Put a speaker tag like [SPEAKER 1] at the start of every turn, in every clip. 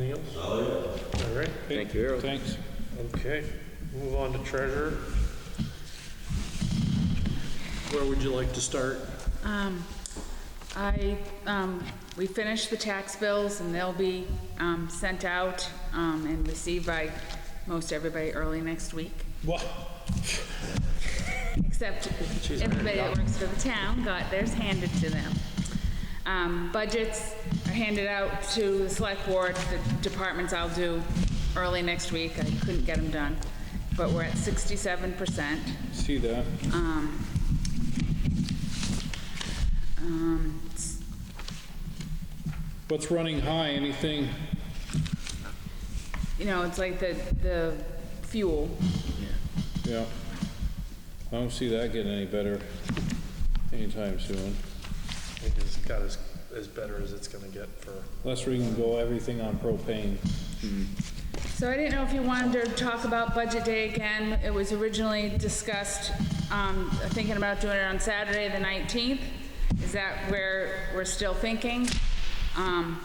[SPEAKER 1] Anything else? All right,
[SPEAKER 2] Thank you, Harold.
[SPEAKER 3] Thanks.
[SPEAKER 1] okay, move on to treasurer. Where would you like to start?
[SPEAKER 4] Um, I, um, we finished the tax bills and they'll be, um, sent out, um, and received by most everybody early next week.
[SPEAKER 3] What?
[SPEAKER 4] Except everybody that works for the town got theirs handed to them. Um, budgets are handed out to the select board, the departments I'll do early next week. I couldn't get them done, but we're at sixty-seven percent.
[SPEAKER 3] See that?
[SPEAKER 4] Um, um, s-
[SPEAKER 3] What's running high? Anything?
[SPEAKER 4] you know, it's like the, the fuel.
[SPEAKER 3] Yeah. I don't see that getting any better anytime soon.
[SPEAKER 1] I think it's got as, as better as it's gonna get for,
[SPEAKER 3] Unless we can go everything on propane.
[SPEAKER 4] So I didn't know if you wanted to talk about Budget Day again. It was originally discussed, um, thinking about doing it on Saturday, the 19th. Is that where we're still thinking? Um,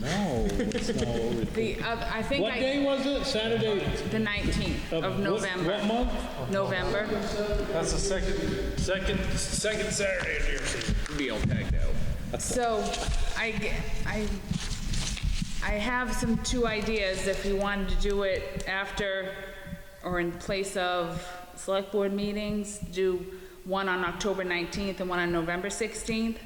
[SPEAKER 3] No, it's not what we
[SPEAKER 4] the, oth- I think
[SPEAKER 3] What
[SPEAKER 4] I,
[SPEAKER 3] day was it? Saturday?
[SPEAKER 4] the 19th
[SPEAKER 3] what-
[SPEAKER 4] of
[SPEAKER 3] What
[SPEAKER 4] November.
[SPEAKER 3] month?
[SPEAKER 4] November.
[SPEAKER 1] that's the second, second, second Saturday of the year season.
[SPEAKER 2] Be all tagged out.
[SPEAKER 4] So I, g- I- I have some, two ideas, if you wanted to do it after or in place of select board meetings, do one on October 19th and one on November 16th.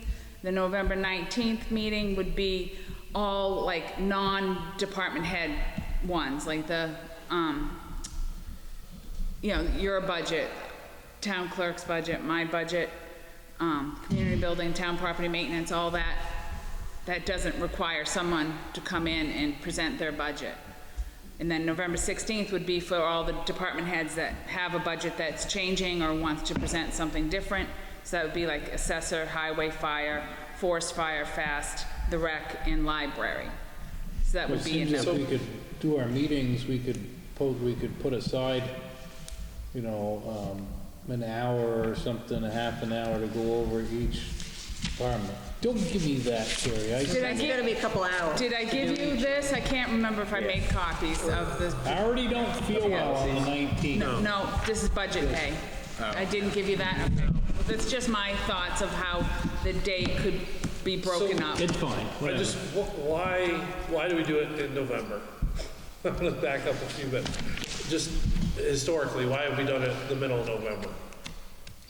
[SPEAKER 4] The November 19th meeting would be all like non-department head ones, like the, um, you know, your budget, town clerk's budget, my budget, um, community building, town property maintenance, all that, that doesn't require someone to come in and present their budget. And then November 16th would be for all the department heads that have a budget that's changing or wants to present something different. So that would be like assessor, highway, fire, forest fire, fast, the rec, and library. So that
[SPEAKER 3] It
[SPEAKER 4] would be in
[SPEAKER 3] seems like
[SPEAKER 4] the,
[SPEAKER 3] we could do our meetings, we could, put- we could put aside, you know, um, an hour or something, a half an hour to go over each department. Don't give me that, Terry. I
[SPEAKER 4] did I
[SPEAKER 5] It's
[SPEAKER 4] give-
[SPEAKER 5] gonna be a couple hours.
[SPEAKER 4] Did I give you this? I can't remember if I made copies of this.
[SPEAKER 3] I already don't feel well on the 19th.
[SPEAKER 4] No, this is budget day. I didn't give you that. Okay. Well, That's just my thoughts of how the day could be broken up.
[SPEAKER 3] It's fine,
[SPEAKER 1] I
[SPEAKER 3] whatever.
[SPEAKER 1] just, wh- why, why do we do it in November? I'm gonna back up a few bit. Just historically, why have we done it the middle of November?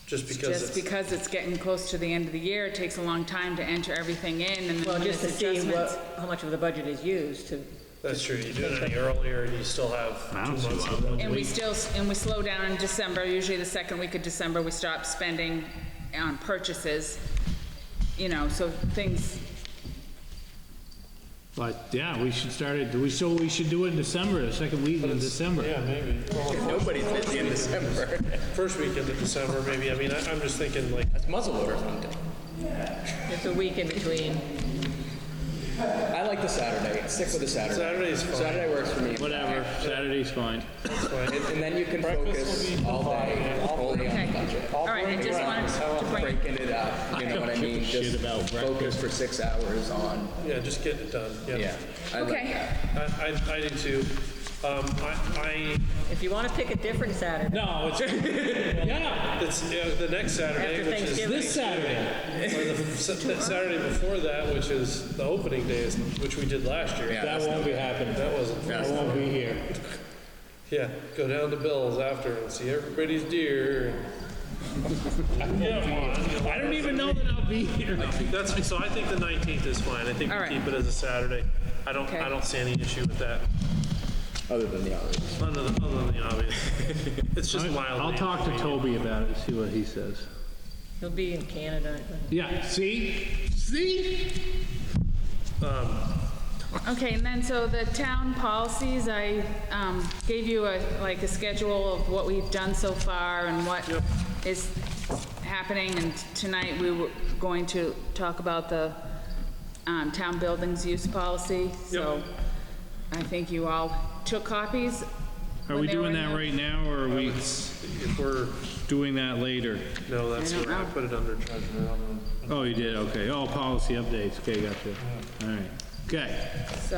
[SPEAKER 1] Just because
[SPEAKER 4] Just
[SPEAKER 1] it's,
[SPEAKER 4] because it's getting close to the end of the year, it takes a long time to enter everything in and then
[SPEAKER 5] Well,
[SPEAKER 4] when
[SPEAKER 5] just
[SPEAKER 4] there's
[SPEAKER 5] to see
[SPEAKER 4] adjustments.
[SPEAKER 5] what, how much of the budget is used to,
[SPEAKER 1] that's true, you do it any earlier and you still have two months. of
[SPEAKER 4] And we
[SPEAKER 1] November.
[SPEAKER 4] still, s- and we slow down in December, usually the second week of December, we stop spending on purchases. You know, so things,
[SPEAKER 6] But, yeah, we should start it, do we, so we should do it in December, the second week in December.
[SPEAKER 1] Yeah, maybe. Well,
[SPEAKER 2] Nobody's busy in December.
[SPEAKER 1] First weekend of December, maybe, I mean, I- I'm just thinking like,
[SPEAKER 2] That's muzzle loaders on deck.
[SPEAKER 5] it's a week in between.
[SPEAKER 2] I like the Saturday. Stick with the Saturday.
[SPEAKER 1] Saturday's fine.
[SPEAKER 2] Saturday works for me.
[SPEAKER 6] Whatever, Saturday's fine.
[SPEAKER 1] it's fine.
[SPEAKER 2] And, and then you can focus all day only on
[SPEAKER 4] okay.
[SPEAKER 2] the budget.
[SPEAKER 4] All right, I just wanted to bring,
[SPEAKER 2] Breaking it up, you know what I mean?
[SPEAKER 6] shit
[SPEAKER 2] Just
[SPEAKER 6] about
[SPEAKER 2] focus for six hours on,
[SPEAKER 1] yeah, just getting it done, yeah.
[SPEAKER 2] yeah. I like
[SPEAKER 4] Okay.
[SPEAKER 2] that.
[SPEAKER 1] I, I, I do too. Um, I,
[SPEAKER 5] If you wanna pick a different Saturday,
[SPEAKER 3] No, it's, yeah,
[SPEAKER 1] I, it's, uh the next Saturday,
[SPEAKER 5] After
[SPEAKER 1] which is
[SPEAKER 5] Thanksgiving.
[SPEAKER 3] this Saturday.
[SPEAKER 1] Or the sa- that Saturday before that, which is the opening day, is- which we did last year.
[SPEAKER 2] Yeah.
[SPEAKER 3] That won't be happening.
[SPEAKER 1] That wasn't,
[SPEAKER 3] I won't be here.
[SPEAKER 1] yeah, go down to Bill's after and see everybody's deer.
[SPEAKER 6] I don't even know that I'll be here.
[SPEAKER 1] That's, so I think the 19th is fine. I think
[SPEAKER 4] All
[SPEAKER 1] we
[SPEAKER 4] right.
[SPEAKER 1] keep it as a Saturday. I don't, I
[SPEAKER 4] Okay.
[SPEAKER 1] don't see any issue with that,
[SPEAKER 2] Other than the hours.
[SPEAKER 1] other than, other than the obvious. It's just wildly.
[SPEAKER 6] I'll talk to Toby about it, see what he says.
[SPEAKER 5] he'll be in Canada, I think.
[SPEAKER 6] Yeah, see? See?
[SPEAKER 4] Okay, and then, so the town policies, I um, gave you a, like, a schedule of what we've done so far and what is happening, and tonight we were going to talk about the um, town buildings use policy, so I think you all took copies.
[SPEAKER 6] Are
[SPEAKER 4] when
[SPEAKER 6] we
[SPEAKER 4] they were
[SPEAKER 6] doing
[SPEAKER 4] in
[SPEAKER 6] that
[SPEAKER 4] the-
[SPEAKER 6] right now, or are we
[SPEAKER 1] If we're,
[SPEAKER 6] doing that later?
[SPEAKER 1] no, that's
[SPEAKER 4] I don't
[SPEAKER 1] where I
[SPEAKER 4] know.
[SPEAKER 1] put it under treasurer. I'm gonna-
[SPEAKER 6] Oh, you did, okay. Oh, policy updates, okay, gotcha. All right.
[SPEAKER 3] Okay.